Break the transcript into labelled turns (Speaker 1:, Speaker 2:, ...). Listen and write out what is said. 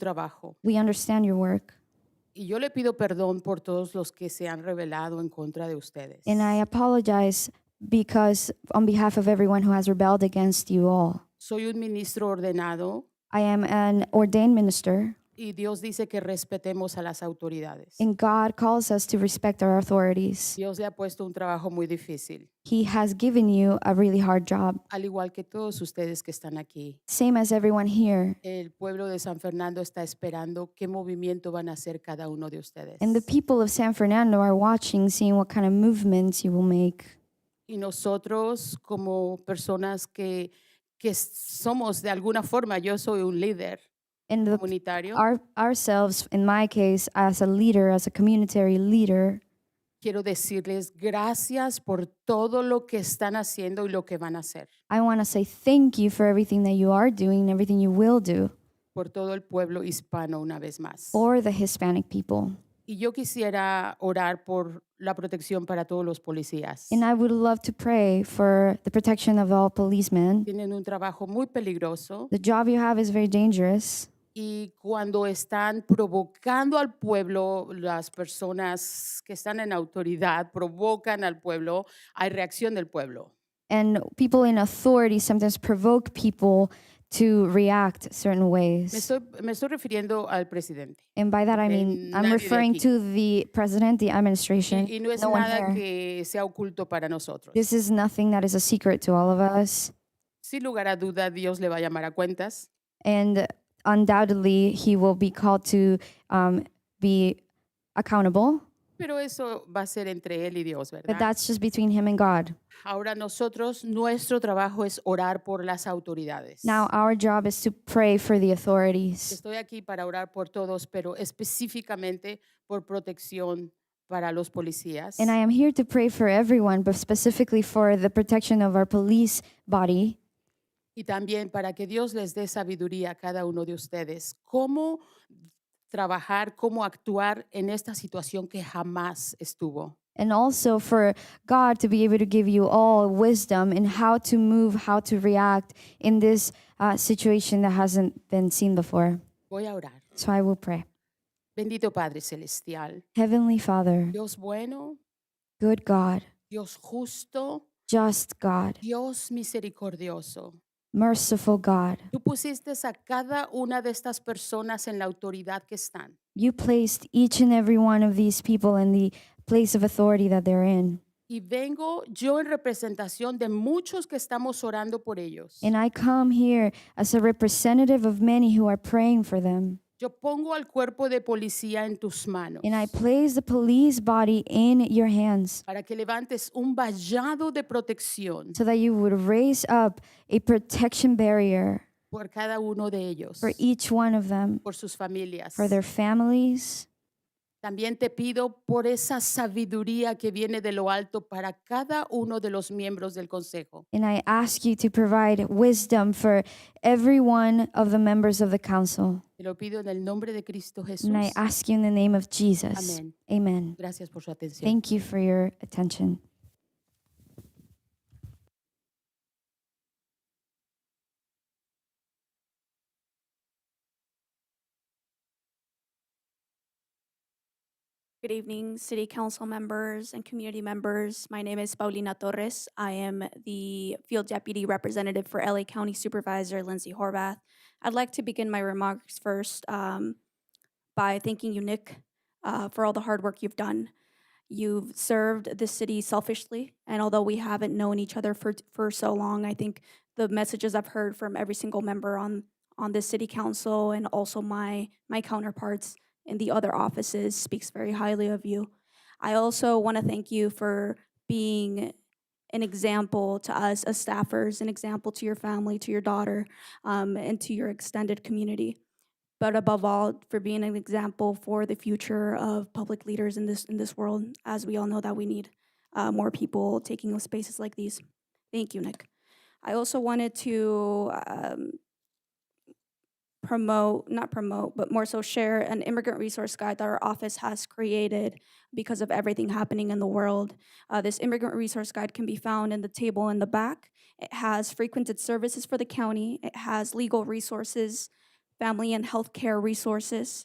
Speaker 1: trabajo.
Speaker 2: We understand your work.
Speaker 1: Y yo le pido perdón por todos los que se han rebelado en contra de ustedes.
Speaker 2: And I apologize because, on behalf of everyone who has rebelled against you all,
Speaker 1: Soy un ministro ordenado
Speaker 2: I am an ordained minister,
Speaker 1: y Dios dice que respetemos a las autoridades.
Speaker 2: and God calls us to respect our authorities.
Speaker 1: Dios le ha puesto un trabajo muy difícil,
Speaker 2: He has given you a really hard job,
Speaker 1: al igual que todos ustedes que están aquí.
Speaker 2: same as everyone here.
Speaker 1: El pueblo de San Fernando está esperando qué movimiento van a hacer cada uno de ustedes.
Speaker 2: And the people of San Fernando are watching, seeing what kind of movements you will make.
Speaker 1: Y nosotros como personas que, que somos de alguna forma, yo soy un líder
Speaker 2: And the
Speaker 1: comunitario,
Speaker 2: our, ourselves, in my case, as a leader, as a communitary leader,
Speaker 1: quiero decirles gracias por todo lo que están haciendo y lo que van a hacer,
Speaker 2: I want to say thank you for everything that you are doing and everything you will do
Speaker 1: por todo el pueblo hispano una vez más.
Speaker 2: for the Hispanic people.
Speaker 1: Y yo quisiera orar por la protección para todos los policías.
Speaker 2: And I would love to pray for the protection of all policemen.
Speaker 1: Tienen un trabajo muy peligroso
Speaker 2: The job you have is very dangerous,
Speaker 1: y cuando están provocando al pueblo, las personas que están en autoridad provocan al pueblo, hay reacción del pueblo.
Speaker 2: and people in authority sometimes provoke people to react certain
Speaker 1: Me
Speaker 2: ways.
Speaker 1: estoy, me estoy refiriendo al presidente.
Speaker 2: And by that I mean I'm
Speaker 1: nadie de
Speaker 2: referring
Speaker 1: aquí.
Speaker 2: to the president, the administration.
Speaker 1: Y no es
Speaker 2: no one
Speaker 1: nada
Speaker 2: here.
Speaker 1: que sea oculto para nosotros.
Speaker 2: This is nothing that is a secret to all of us,
Speaker 1: Sin lugar a duda, Dios le va a llamar a cuentas.
Speaker 2: and undoubtedly he will be called to um, be accountable.
Speaker 1: Pero eso va a ser entre él y Dios,
Speaker 2: But
Speaker 1: ¿verdad?
Speaker 2: that's just between him and God.
Speaker 1: Ahora nosotros, nuestro trabajo es orar por las autoridades.
Speaker 2: Now our job is to pray for the authorities.
Speaker 1: Estoy aquí para orar por todos, pero específicamente por protección para los policías.
Speaker 2: And I am here to pray for everyone, but specifically for the protection of our police body
Speaker 1: y también para que Dios les dé sabiduría a cada uno de ustedes. Cómo trabajar, cómo actuar en esta situación que jamás estuvo.
Speaker 2: and also for God to be able to give you all wisdom in how to move, how to react in this uh, situation that hasn't been seen before.
Speaker 1: Voy a orar.
Speaker 2: So I will pray.
Speaker 1: Bendito Padre Celestial,
Speaker 2: Heavenly Father,
Speaker 1: Dios bueno,
Speaker 2: good God,
Speaker 1: Dios justo,
Speaker 2: just God,
Speaker 1: Dios misericordioso.
Speaker 2: merciful God,
Speaker 1: Tú pusiste a cada una de estas personas en la autoridad que están.
Speaker 2: you placed each and every one of these people in the place of authority that they're in.
Speaker 1: Y vengo yo en representación de muchos que estamos orando por ellos.
Speaker 2: And I come here as a representative of many who are praying for them.
Speaker 1: Yo pongo al cuerpo de policía en tus manos
Speaker 2: And I place the police body in your hands
Speaker 1: para que levantes un vallado de protección
Speaker 2: so that you would raise up a protection barrier
Speaker 1: por cada uno de ellos,
Speaker 2: for each one of them,
Speaker 1: por sus familias.
Speaker 2: for their families.
Speaker 1: También te pido por esa sabiduría que viene de lo alto para cada uno de los miembros del consejo.
Speaker 2: And I ask you to provide wisdom for every one of the members of the council.
Speaker 1: Te lo pido en el nombre de Cristo Jesús.
Speaker 2: And I ask you in the name of Jesus.
Speaker 1: Amén.
Speaker 2: Amen.
Speaker 1: Gracias por su atención.
Speaker 2: Thank you for your attention.
Speaker 3: Good evening, City Council members and community members. My name is Paulina Torres. I am the Field Deputy Representative for LA County Supervisor Lindsay Horvath. I'd like to begin my remarks first um, by thanking you, Nick, uh, for all the hard work you've done. You've served the city selfishly, and although we haven't known each other for, for so long, I think the messages I've heard from every single member on, on this city council and also my, my counterparts in the other offices speaks very highly of you. I also want to thank you for being an example to us as staffers, an example to your family, to your daughter, um, and to your extended community. But above all, for being an example for the future of public leaders in this in this world, as we all know that we need uh, more people taking up spaces like these. Thank you, Nick. I also wanted to um, promote, not promote, but more so share an immigrant resource guide that our office has created because of everything happening in the world. Uh, this immigrant resource guide can be found in the table in the back. It has frequented services for the county, it has legal resources, family and health care resources,